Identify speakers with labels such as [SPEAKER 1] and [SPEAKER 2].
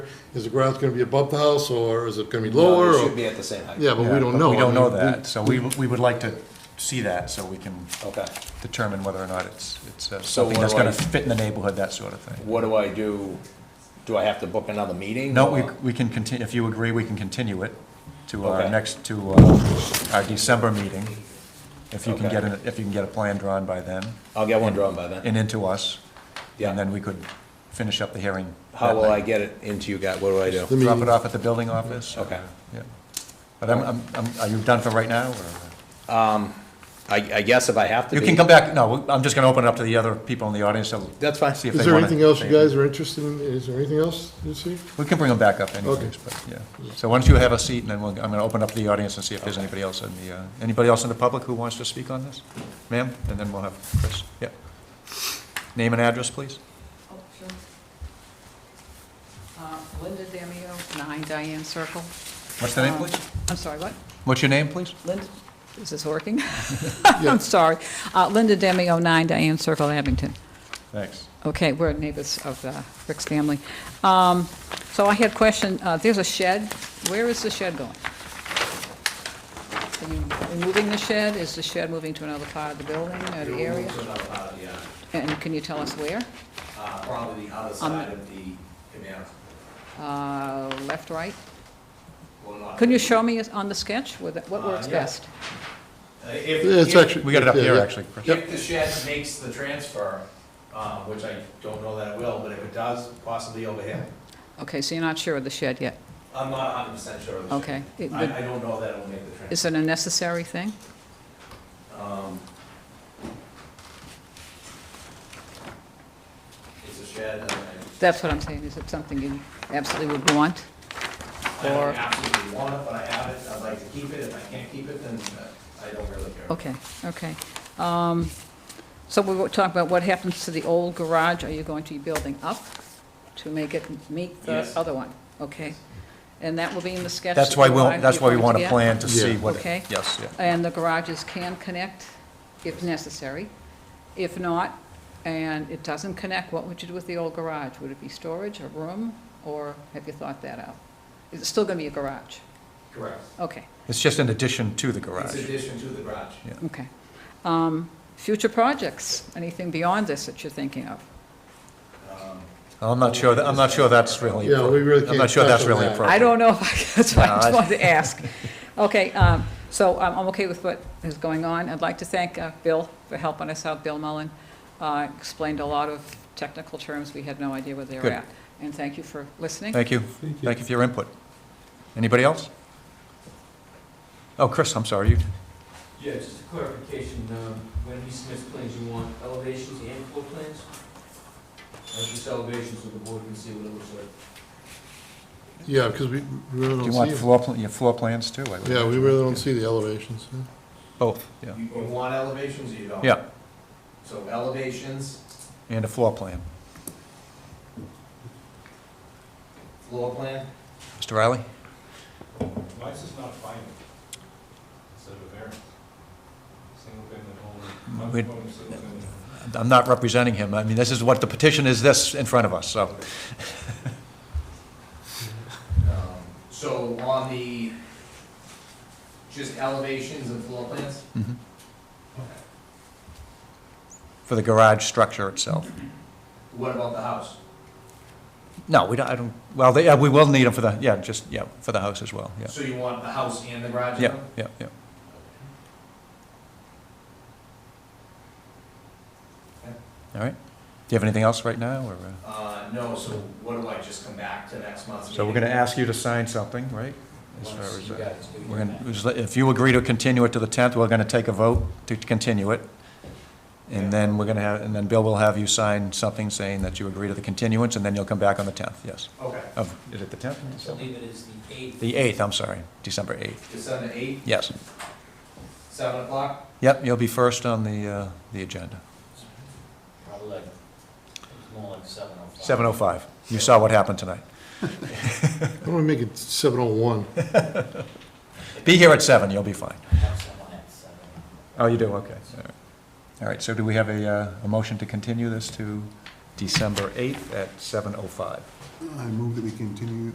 [SPEAKER 1] Is the ground gonna be above the house, or is it gonna be
[SPEAKER 2] No, they
[SPEAKER 1] lower?
[SPEAKER 2] Should
[SPEAKER 1] or-
[SPEAKER 2] be at the same height.
[SPEAKER 1] Yeah, but we
[SPEAKER 3] Yeah,
[SPEAKER 1] don't
[SPEAKER 3] but
[SPEAKER 1] know.
[SPEAKER 3] We
[SPEAKER 1] I
[SPEAKER 3] don't know
[SPEAKER 1] mean,
[SPEAKER 3] that, so we, we would like to see that, so we can
[SPEAKER 2] Okay.
[SPEAKER 3] determine whether or not it's, it's uh,
[SPEAKER 2] So
[SPEAKER 3] something
[SPEAKER 2] what
[SPEAKER 3] that's
[SPEAKER 2] do I-
[SPEAKER 3] gonna fit in the neighborhood, that sort of thing.
[SPEAKER 2] What do I do? Do I have to book another meeting?
[SPEAKER 3] No,
[SPEAKER 2] or-
[SPEAKER 3] we, we can continue, if you agree, we can continue it to our
[SPEAKER 2] Okay.
[SPEAKER 3] next, to uh, our December meeting. If you can
[SPEAKER 2] Okay.
[SPEAKER 3] get, an- if you can get a plan drawn by then
[SPEAKER 2] I'll get one drawn by then.
[SPEAKER 3] and into us,
[SPEAKER 2] Yeah.
[SPEAKER 3] and then we could finish up the hearing.
[SPEAKER 2] How
[SPEAKER 3] that
[SPEAKER 2] will I
[SPEAKER 3] night.
[SPEAKER 2] get it into you guys? What do I do?
[SPEAKER 1] The
[SPEAKER 3] Drop
[SPEAKER 1] meeting,
[SPEAKER 3] it off at the building office?
[SPEAKER 2] Okay.
[SPEAKER 3] Yeah. But I'm, I'm, I'm- are you done for right now, or?
[SPEAKER 2] I, I guess if I have to
[SPEAKER 3] You
[SPEAKER 2] be.
[SPEAKER 3] can come back, no, I'm just gonna open it up to the other people in the audience, so
[SPEAKER 2] That's fine.
[SPEAKER 3] see if they
[SPEAKER 1] is there
[SPEAKER 3] wanna-
[SPEAKER 1] anything else you guys are interested in? Is there anything else you see?
[SPEAKER 3] We can bring them back up anyways,
[SPEAKER 1] Okay.
[SPEAKER 3] but, yeah. So why don't you have a seat, and then we'll, I'm gonna open up the audience and see if there's anybody else in the, uh, anybody else in the public who wants to speak on this? Ma'am, and then we'll have Chris, yeah. Name and address, please.
[SPEAKER 4] Oh, sure. Uh, Linda Damio, 9 Diane Circle.
[SPEAKER 3] What's the name,
[SPEAKER 4] Um,
[SPEAKER 3] please?
[SPEAKER 4] I'm sorry, what?
[SPEAKER 3] Uh, What's your name, please?
[SPEAKER 4] Linda, is this working?
[SPEAKER 1] Yeah.
[SPEAKER 4] I'm sorry. Uh, Linda Damio, 9 Diane Circle, Abington.
[SPEAKER 3] Thanks.
[SPEAKER 4] Okay, we're neighbors of uh, Rick's family. Um, So I had a question, uh, there's a shed, where is the shed going? Are you removing the shed? Is the shed moving to another part of the building or the area?
[SPEAKER 5] uh,
[SPEAKER 4] And can you tell us where?
[SPEAKER 2] Probably the other
[SPEAKER 4] side
[SPEAKER 2] of the canal.
[SPEAKER 4] Uh, Left, right? Can you show me on the sketch with, it- what
[SPEAKER 2] Uh,
[SPEAKER 4] works
[SPEAKER 2] yeah.
[SPEAKER 4] best?
[SPEAKER 1] It's actually.
[SPEAKER 3] We got it up
[SPEAKER 1] yeah,
[SPEAKER 3] here,
[SPEAKER 1] yeah.
[SPEAKER 3] actually, Chris.
[SPEAKER 1] Yep.
[SPEAKER 5] Uh, If the shed makes the transfer, um, which I don't know that it will, but if it does, possibly over here.
[SPEAKER 4] Okay, so you're not sure of the shed yet?
[SPEAKER 5] I'm not hundred percent sure of the shed.
[SPEAKER 4] Okay. It would-
[SPEAKER 5] I, I don't know that it will make the transfer.
[SPEAKER 4] Is it a necessary thing?
[SPEAKER 5] Um, It's a shed, and I,
[SPEAKER 4] That's what I'm saying, is it something you absolutely would want?
[SPEAKER 5] I
[SPEAKER 4] Or-
[SPEAKER 5] don't absolutely want it, but I have it, I'd like to keep it, if I can't keep it, then uh, I don't really care.
[SPEAKER 4] Okay, okay. Um, So we were talking about what happens to the old garage, are you going to be building up to make it meet the
[SPEAKER 5] Yes.
[SPEAKER 4] other one? Okay, and that will be in the sketch?
[SPEAKER 3] That's
[SPEAKER 4] that
[SPEAKER 3] why
[SPEAKER 4] you
[SPEAKER 3] we'll,
[SPEAKER 4] want-
[SPEAKER 3] that's
[SPEAKER 4] you
[SPEAKER 3] why we want a
[SPEAKER 4] to get?
[SPEAKER 3] plan to
[SPEAKER 1] Yeah.
[SPEAKER 3] see what,
[SPEAKER 4] Okay.
[SPEAKER 3] it- yes, yeah.
[SPEAKER 4] And the garages can connect if necessary. If not, and it doesn't connect, what would you do with the old garage? Would it be storage, a room, or have you thought that out? Is it still going to be a garage?
[SPEAKER 5] Correct.
[SPEAKER 4] Okay,
[SPEAKER 3] It's just an addition to the
[SPEAKER 5] It's
[SPEAKER 3] garage.
[SPEAKER 5] addition to the garage.
[SPEAKER 4] okay. Um, Future projects, anything beyond this that you're thinking of?
[SPEAKER 5] Um,
[SPEAKER 3] I'm not sure, that- I'm not sure that's really,
[SPEAKER 1] Yeah, we really
[SPEAKER 3] appro- I'm not
[SPEAKER 1] can't
[SPEAKER 3] sure that's
[SPEAKER 1] touch on
[SPEAKER 3] really
[SPEAKER 1] that.
[SPEAKER 3] appropriate.
[SPEAKER 4] I don't know, if I- that's why I
[SPEAKER 3] No, I-
[SPEAKER 4] just wanted to ask. Okay, um, so I'm I'm okay with what is going on. I'd like to thank uh, Bill for helping us out, Bill Mullen. uh, Explained a lot of technical terms, we had no idea where they were
[SPEAKER 3] Good.
[SPEAKER 4] at. And thank you for listening.
[SPEAKER 3] Thank you. Thank you for your input. Anybody else? Oh, Chris, I'm sorry, you,
[SPEAKER 6] Yeah, just a clarification, um, when he submits plans, you want elevations and floor plans? Or just elevations so the board can see what it looks like?
[SPEAKER 1] Yeah, because we we really
[SPEAKER 3] do you
[SPEAKER 1] don't
[SPEAKER 3] want
[SPEAKER 1] see them.
[SPEAKER 3] floor, pla- your floor plans too? I would
[SPEAKER 1] Yeah, we
[SPEAKER 3] imagine.
[SPEAKER 1] really don't see the elevations. yeah.
[SPEAKER 3] Both, yeah,
[SPEAKER 5] You, you want elevations or you don't?
[SPEAKER 3] yeah,
[SPEAKER 5] So elevations,
[SPEAKER 3] and a floor plan.
[SPEAKER 5] floor plan,
[SPEAKER 3] Mr. Riley?
[SPEAKER 7] Why is this not final? Instead of a variance? Single family home, not
[SPEAKER 3] We-
[SPEAKER 7] proposing single family.
[SPEAKER 3] I'm not representing him, I mean, this is what the petition is, this in front of us, so.
[SPEAKER 5] Um, So on the, just elevations and floor plans?
[SPEAKER 3] mhm.
[SPEAKER 5] Okay.
[SPEAKER 3] For the garage structure itself.
[SPEAKER 5] What about the house?
[SPEAKER 3] No, we don't, I don't, well, they, yeah, we will need them for the, yeah, just, yeah, for the house as well, yeah.
[SPEAKER 5] So you want the house and the garage?
[SPEAKER 3] Yeah,
[SPEAKER 5] now?
[SPEAKER 3] yeah, yeah. All right, do you have anything else right now, or? uh?
[SPEAKER 5] Uh, no, so what do I just come back to next month's meeting?
[SPEAKER 3] So we're gonna ask you to sign something, right? As far
[SPEAKER 6] Once
[SPEAKER 3] as,
[SPEAKER 6] you
[SPEAKER 3] uh,
[SPEAKER 6] guys do
[SPEAKER 3] We're
[SPEAKER 6] your
[SPEAKER 3] gonna, just let- if you agree to continue it to the tenth, we're gonna take a vote to continue it. And then we're gonna have, and then Bill will have you sign something saying that you agree to the continuance, and then you'll come back on the tenth, yes.
[SPEAKER 5] Okay,
[SPEAKER 3] Of, is it the tenth?
[SPEAKER 6] I believe it is the eighth.
[SPEAKER 3] The eighth, I'm sorry, December eighth,
[SPEAKER 5] December eighth,
[SPEAKER 3] yes.
[SPEAKER 5] seven o'clock?
[SPEAKER 3] Yep, you'll be first on the, uh, the agenda.
[SPEAKER 6] Probably like, it's more like seven oh five.
[SPEAKER 3] Seven oh five, you saw what happened tonight.
[SPEAKER 1] Why don't we make it 701?
[SPEAKER 3] Be here at seven, you'll be fine.
[SPEAKER 6] Have someone at seven.
[SPEAKER 3] Oh, you do, okay. All right. All right, so do we have a, uh, a motion to continue this to December 8th at 7:05?
[SPEAKER 1] I move that we continue